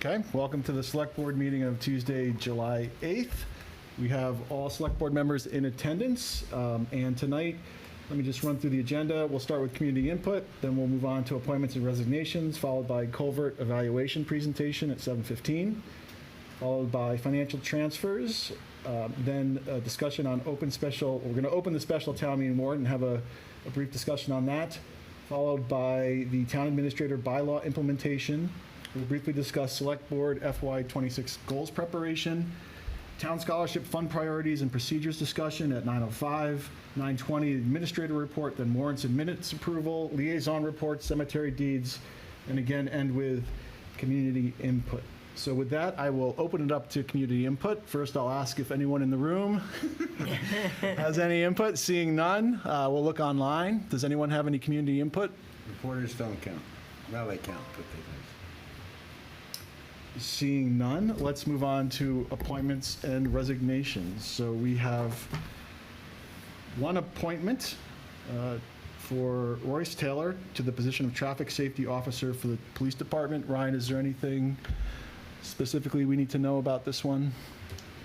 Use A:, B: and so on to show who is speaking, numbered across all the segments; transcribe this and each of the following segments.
A: Okay, welcome to the Select Board meeting of Tuesday, July 8th. We have all Select Board members in attendance, um, and tonight, let me just run through the agenda. We'll start with community input, then we'll move on to appointments and resignations, followed by culvert evaluation presentation at 7:15, followed by financial transfers, um, then a discussion on open special, we're going to open the special town meeting warrant and have a a brief discussion on that, followed by the town administrator bylaw implementation. We'll briefly discuss select board FY '26 goals preparation, town scholarship fund priorities and procedures discussion at 9:05, 9:20 administrator report, then warrants and minutes approval, liaison reports, cemetery deeds, and again, end with community input. So with that, I will open it up to community input. First, I'll ask if anyone in the room has any input? Seeing none, uh, we'll look online. Does anyone have any community input?
B: Reporters don't count. Well, they count, but they don't.
A: Seeing none, let's move on to appointments and resignations. So we have one appointment uh, for Royce Taylor to the position of Traffic Safety Officer for the Police Department. Ryan, is there anything specifically we need to know about this one?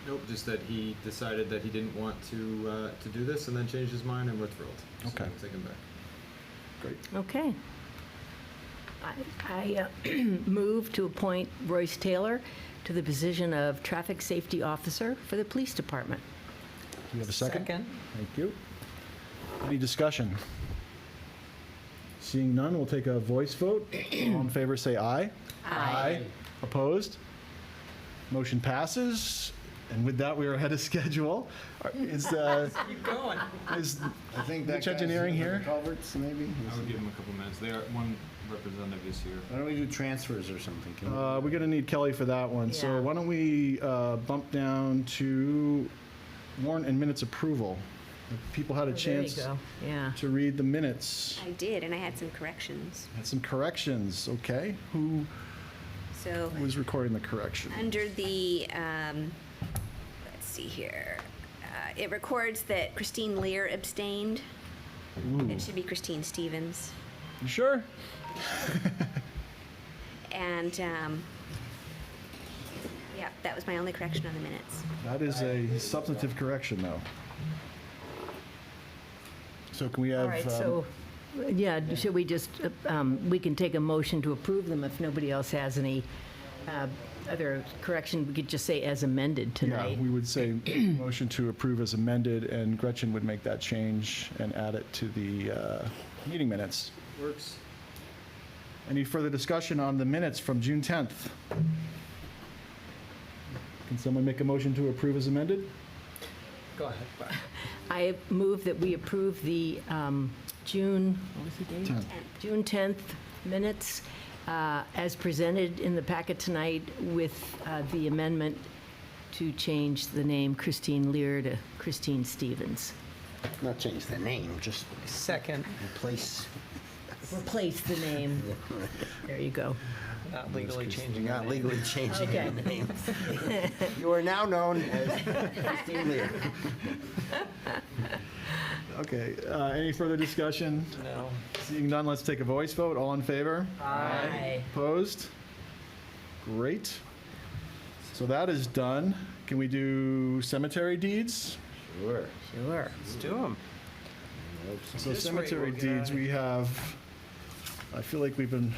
C: Nope, just that he decided that he didn't want to uh, to do this and then changed his mind, and we're thrilled. So
A: Okay.
C: we'll Take him back.
A: Great.
D: Okay. I I, uh, move to appoint Royce Taylor to the position of Traffic Safety Officer for the Police Department.
A: Do you have a second? Thank you. Any discussion? Seeing none, we'll take a voice vote. All in favor, say aye. Opposed? Motion passes. And with that, we are ahead of schedule. Are- Is, uh,
C: Keep going.
A: is,
B: I
A: Rich
B: think that guy's
A: Ah, Engineering
B: looking for
A: here?
B: Culverts, maybe?
C: I would give him a couple minutes. They are one representative is here.
B: Why don't we do transfers or something? Can we-
A: uh, we're gonna need Kelly for that one. So
D: Yeah.
A: why don't we, uh, bump down to warrant and minutes approval? If People had a chance
D: There you go, yeah.
A: to read the minutes.
E: I did, and I had some corrections.
A: Had some corrections, okay? Who
E: So,
A: was recording the correction?
E: under the, um, let's see here, uh, it records that Christine Lear abstained. It should be Christine Stevens.
A: You sure?
E: And, um, yeah, that was my only correction on the minutes.
A: That is a substantive correction, though. So can we have?
D: All right,
A: um,
D: so, yeah, should we just, uh, um, we can take a motion to approve them if nobody else has any uh, other correction. We could just say as amended
A: Yeah,
D: tonight.
A: we would say motion to approve as amended, and Gretchen would make that change and add it to the uh, meeting minutes.
C: Works.
A: Any further discussion on the minutes from June 10th? Can someone make a motion to approve as amended?
C: Go ahead.
D: I move that we approve the um, June, what was the date?
A: Tenth.
D: June 10th minutes uh, as presented in the packet tonight with uh, the amendment to change the name Christine Lear to Christine Stevens.
B: Not change the name, just
F: Second,
B: replace.
D: Replace the name. There you go.
F: not legally changing.
B: Not legally changing
D: Okay.
B: the name. You are now known as Christine Lear.
A: Okay, uh, any further discussion?
F: No.
A: Seeing none, let's take a voice vote. All in favor?
D: Aye.
A: Opposed? Great. So that is done. Can we do cemetery deeds?
B: Sure.
D: Sure.
F: Let's do them.
A: So
F: This rate
A: cemetery
F: we'll get
A: deeds,
F: outta
A: we have, I feel like we've been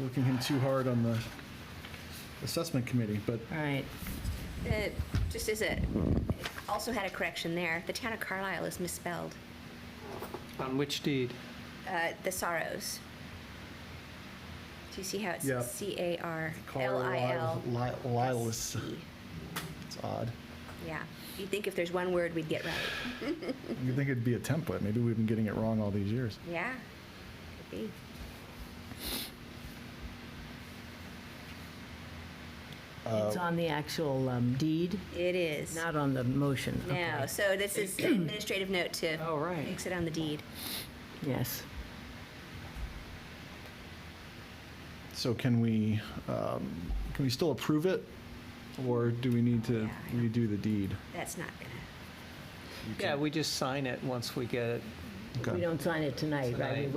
A: working him too hard on the assessment committee, but
D: All right.
E: Uh, Just as a, also had a correction there, the town of Carlisle is misspelled,
F: On which deed?
E: Uh, the Sorrows. Do you see how it's
A: Yeah.
E: C-A-R-L-I-L?
A: Lilas, it's odd.
E: Yeah. You'd think if there's one word we'd get right.
A: You'd think it'd be a template. Maybe we've been getting it wrong all these years.
E: Yeah. Could be.
D: It's on the actual um, deed,
E: It is.
D: not on the motion.
E: No,
D: Okay.
E: so this is an administrative note to
F: Oh, right.
E: fix it on the deed.
D: Yes.
A: So can we, um, can we still approve it? Or do we need to redo the deed?
E: That's not gonna.
F: Yeah, we just sign it once we get it.
A: Okay.
D: We don't sign it tonight, right? We
F: Tonight.